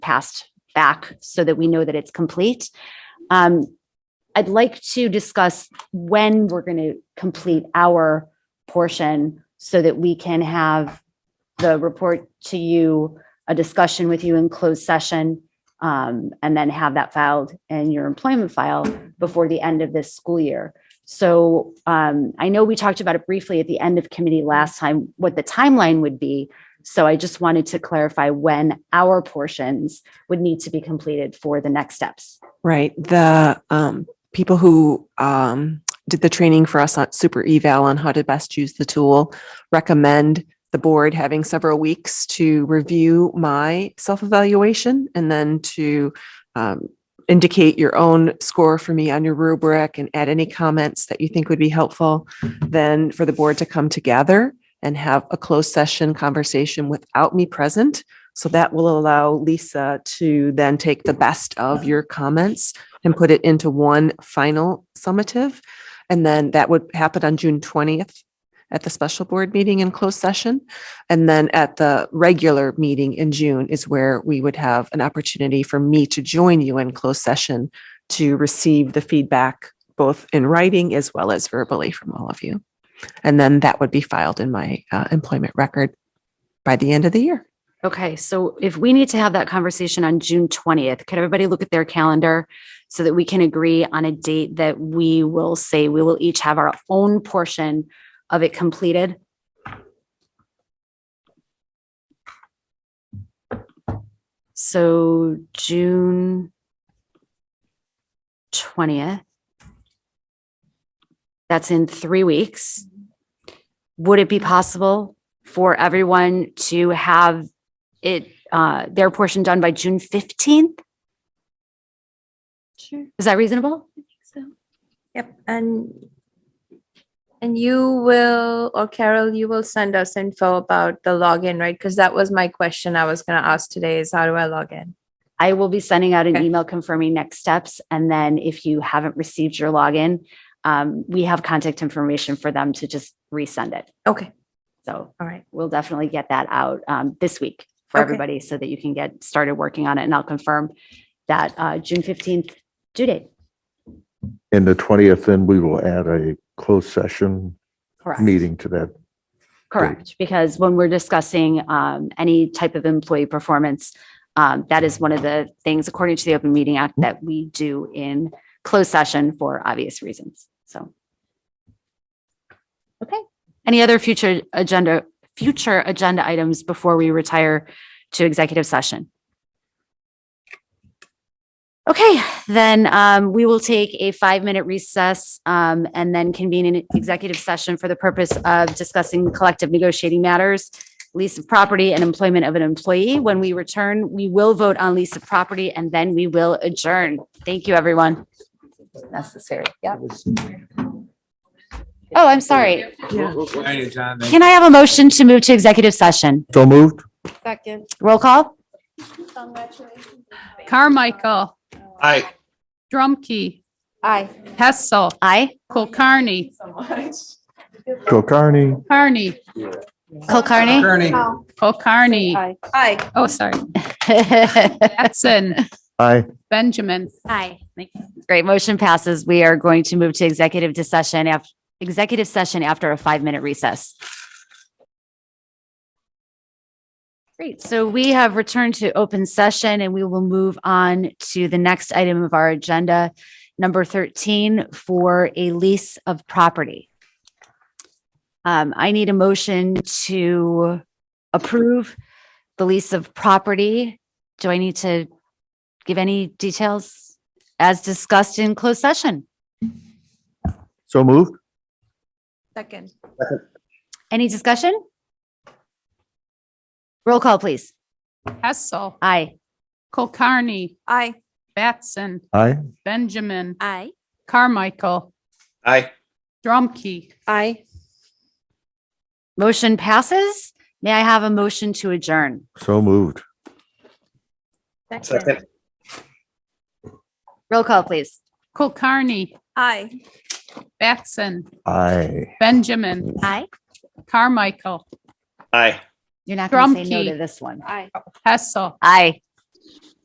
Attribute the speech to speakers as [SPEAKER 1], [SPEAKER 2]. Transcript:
[SPEAKER 1] passed back so that we know that it's complete. Um, I'd like to discuss when we're going to complete our portion so that we can have the report to you, a discussion with you in closed session, um, and then have that filed in your employment file before the end of this school year. So um, I know we talked about it briefly at the end of committee last time, what the timeline would be. So I just wanted to clarify when our portions would need to be completed for the next steps.
[SPEAKER 2] Right. The um, people who um, did the training for us on Super Eval on how to best use the tool recommend the board having several weeks to review my self evaluation and then to um, indicate your own score for me on your rubric and add any comments that you think would be helpful. Then for the board to come together and have a closed session conversation without me present so that will allow Lisa to then take the best of your comments and put it into one final summative. And then that would happen on June twentieth at the special board meeting in closed session. And then at the regular meeting in June is where we would have an opportunity for me to join you in closed session to receive the feedback, both in writing as well as verbally from all of you. And then that would be filed in my uh, employment record by the end of the year.
[SPEAKER 1] Okay, so if we need to have that conversation on June twentieth, could everybody look at their calendar so that we can agree on a date that we will say we will each have our own portion of it completed? So June twentieth. That's in three weeks. Would it be possible for everyone to have it, uh, their portion done by June fifteenth?
[SPEAKER 3] Sure.
[SPEAKER 1] Is that reasonable?
[SPEAKER 3] So, yep, and and you will or Carol, you will send us info about the login, right? Because that was my question I was going to ask today: is how do I log in?
[SPEAKER 1] I will be sending out an
[SPEAKER 3] Okay.
[SPEAKER 1] email confirming next steps. And then if you haven't received your login, um, we have contact information for them to just resend it.
[SPEAKER 3] Okay,
[SPEAKER 1] So
[SPEAKER 3] all right,
[SPEAKER 1] we'll definitely get that out, um, this week for
[SPEAKER 3] Okay.
[SPEAKER 1] everybody so that you can get started working on it. And I'll confirm that, uh, June fifteenth due date.
[SPEAKER 4] And the twentieth, then we will add a closed session
[SPEAKER 1] Correct.
[SPEAKER 4] meeting to that.
[SPEAKER 1] Correct, because when we're discussing um, any type of employee performance, um, that is one of the things, according to the Open Meeting Act, that we do in closed session for obvious reasons. So. Okay, any other future agenda, future agenda items before we retire to executive session? Okay, then um, we will take a five-minute recess um, and then convene an executive session for the purpose of discussing collective negotiating matters, lease of property and employment of an employee. When we return, we will vote on lease of property and then we will adjourn. Thank you, everyone. Necessary, yeah. Oh, I'm sorry. Can I have a motion to move to executive session?
[SPEAKER 4] So moved?
[SPEAKER 1] Roll call?
[SPEAKER 5] Carmichael.
[SPEAKER 6] Aye.
[SPEAKER 5] Drumkey.
[SPEAKER 3] Aye.
[SPEAKER 5] Hessel.
[SPEAKER 1] Aye.
[SPEAKER 5] Kulkarni.
[SPEAKER 4] Kulkarni,
[SPEAKER 5] Carney.
[SPEAKER 1] Kulkarni?
[SPEAKER 6] Kearney.
[SPEAKER 5] Kulkarni.
[SPEAKER 3] Hi.
[SPEAKER 5] Oh, sorry. Batson.
[SPEAKER 4] aye.
[SPEAKER 5] Benjamin.
[SPEAKER 1] Aye. Great. Motion passes. We are going to move to executive to session af, executive session after a five-minute recess. Great. So we have returned to open session and we will move on to the next item of our agenda, number 13, for a lease of property. Um, I need a motion to approve the lease of property. Do I need to give any details as discussed in closed session.
[SPEAKER 4] So moved?
[SPEAKER 3] Second.
[SPEAKER 1] Any discussion? Roll call, please.
[SPEAKER 5] Hessel.
[SPEAKER 1] Aye.
[SPEAKER 5] Kulkarni.
[SPEAKER 3] Aye.
[SPEAKER 5] Batson.
[SPEAKER 4] Aye.
[SPEAKER 5] Benjamin.
[SPEAKER 3] Aye.
[SPEAKER 5] Carmichael.
[SPEAKER 6] Aye.
[SPEAKER 5] Drumkey.
[SPEAKER 3] Aye.
[SPEAKER 1] Motion passes. May I have a motion to adjourn?
[SPEAKER 4] So moved.
[SPEAKER 3] Second.
[SPEAKER 1] Roll call, please.
[SPEAKER 5] Kulkarni.
[SPEAKER 3] Aye.
[SPEAKER 5] Batson.
[SPEAKER 4] Aye.
[SPEAKER 5] Benjamin.
[SPEAKER 1] Aye.
[SPEAKER 5] Carmichael.
[SPEAKER 6] Aye.
[SPEAKER 1] You're not going to say no
[SPEAKER 5] Drumkey.
[SPEAKER 1] to this one.
[SPEAKER 3] Aye.
[SPEAKER 5] Hessel.
[SPEAKER 1] Aye.